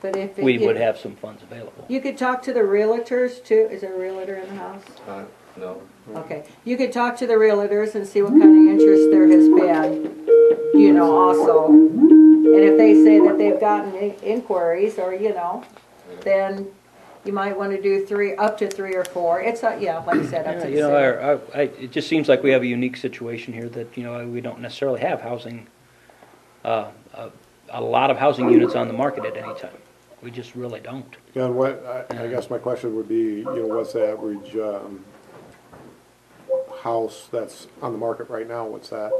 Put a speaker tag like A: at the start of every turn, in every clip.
A: But if. it-
B: we would have some funds available.
A: You could talk to the realtors too. Is there a realtor in the house?
C: Uh, No,
A: Okay. You could talk to the realtors and see what kind of interest there has been, you know, also. And if they say that they've gotten in- inquiries or, you know, then you might want to do three, up to three or four. It's, uh, yeah, like you said, up
B: Yeah,
A: to the
B: You know,
A: city.
B: our, our, I, it just seems like we have a unique situation here that, you know, we don't necessarily have housing, uh, a, a lot of housing units on the market at any time. We just really don't.
D: Yeah, and what, I, I guess my question would be, you know, what's the average, um, house that's on the market right now, what's that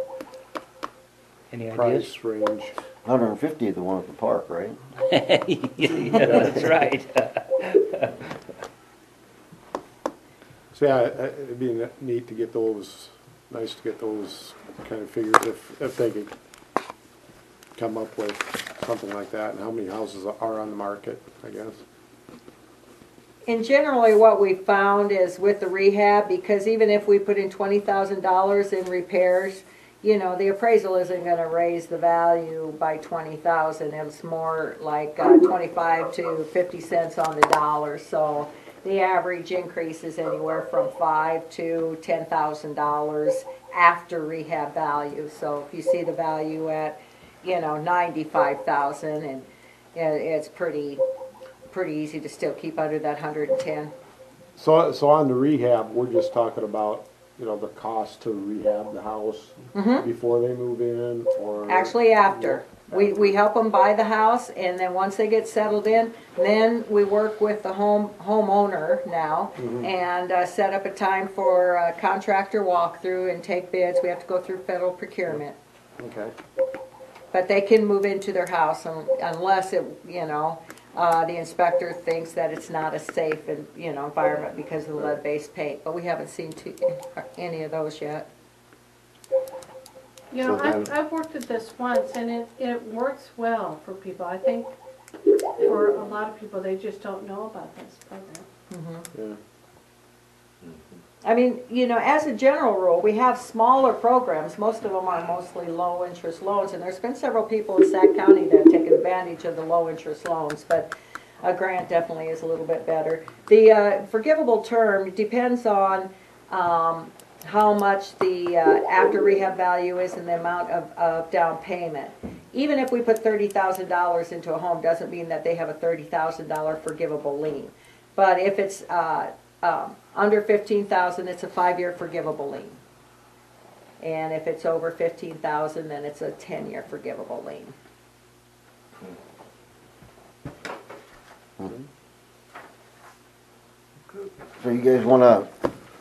B: Any ideas?
D: price range?
E: Hundred and fifty is the one at the park, right?
B: Yeah, that's right.
D: So, yeah, it- it'd be neat to get those, nice to get those kind of figures if, if they could come up with something like that, and how many houses are on the market, I guess.
A: And generally, what we found is with the rehab, because even if we put in twenty thousand dollars in repairs, you know, the appraisal isn't gonna raise the value by twenty thousand, it's more like uh, twenty-five to fifty cents on the dollar, so the average increase is anywhere from five to ten thousand dollars after rehab value, so if you see the value at, you know, ninety-five thousand, and it, it's pretty, pretty easy to still keep under that hundred and ten.
D: So, so on the rehab, we're just talking about, you know, the cost to rehab the house before they move in, or?
A: Mm-hmm. Actually, after, we, we help them buy the house, and then once they get settled in, then we work with the home, homeowner now, and, uh, set up a time for a contractor walkthrough and take bids, we have to go through federal procurement.
D: Okay.
A: But they can move into their house un- unless it, you know, uh, the inspector thinks that it's not a safe and, you know, environment because of the lead-based paint, but we haven't seen too, any of those yet.
F: You know,
D: So
F: I've,
D: then-
F: I've worked at this once and it, it works well for people. I think for a lot of people, they just don't know about this program.
D: Yeah.
A: I mean, you know, as a general rule, we have smaller programs, most of them are mostly low-interest loans, and there's been several people in Sac County that have taken advantage of the low-interest loans, but a grant definitely is a little bit better. The uh, forgivable term depends on um, how much the uh, after rehab value is and the amount of, of down payment. Even if we put thirty thousand dollars into a home, doesn't mean that they have a thirty thousand dollar forgivable lien. But if it's uh, um, under fifteen thousand, it's a five-year forgivable lien. And if it's over fifteen thousand, then it's a ten-year forgivable lien.
E: So you guys wanna,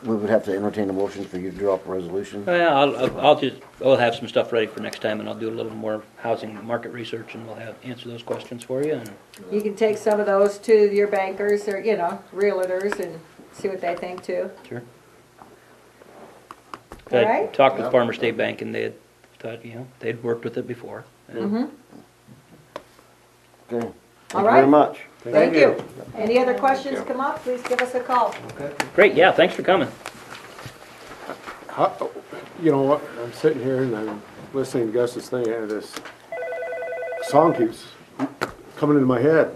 E: we would have to entertain a motion for you to drop a resolution?
B: Well, I'll- I'll, I'll just, I'll have some stuff ready for next time and I'll do a little more housing market research and we'll have, answer those questions for you and
A: You can take some of those to your bankers or, you know, realtors and see what they think too.
B: Sure.
A: All
B: I
A: right.
B: talked with
C: Yeah.
B: Farmer State Bank and they had thought, you know, they'd worked with it before. and-
E: Okay. Thank
A: All
E: you very
A: right.
E: much.
A: Thank you. Any other
C: Thank
A: questions
C: you.
A: come up, please give us a call.
C: okay.
B: Great, yeah, thanks for coming.
D: How, you know what, I'm sitting here and I'm listening to Gus's thing and this song keeps coming into my head.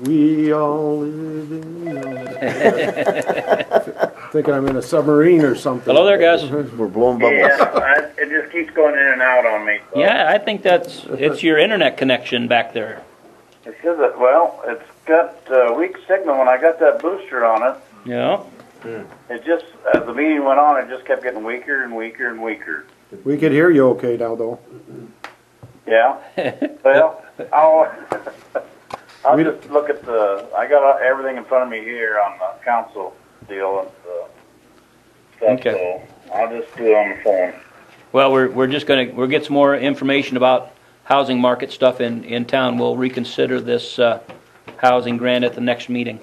D: We all live in. a-" Thinking I'm in a submarine or something.
B: Hello there, guys.
E: We're blowing
G: Yeah,
E: bubbles.
G: I, it just keeps going in and out on me. so.
B: Yeah, I think that's, it's your internet connection back there.
G: It says that, well, it's got uh, weak signal. When I got that booster on it,
B: Yeah,
G: it just, as the meeting went on, it just kept getting weaker and weaker and weaker.
D: We could hear you okay now though.
G: Yeah. well, I'll, I'll
D: We
G: just look at the, I got everything in front of me here on the council deal and stuff,
B: Okay.
G: so I'll just do it on the phone.
B: well, we're, we're just gonna, we'll get some more information about housing market stuff in, in town. We'll reconsider this, uh, housing grant at the next meeting.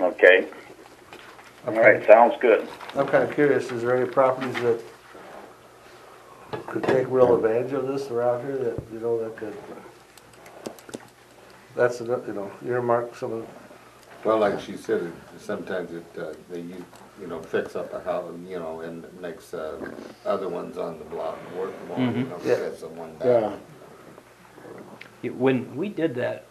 G: Okay. All right, sounds good.
C: I'm kind of curious, is there any properties that could take real advantage of this around here that, you know, that could? That's, ano- you know, earmark some of,
H: Well, like she said, it- sometimes it, uh, they, u- you know, fix up a house, you know, and makes, uh, other ones on the block work more, you know,
C: Yeah.
H: because of one
D: Yeah.
H: guy.
B: It- When we did that,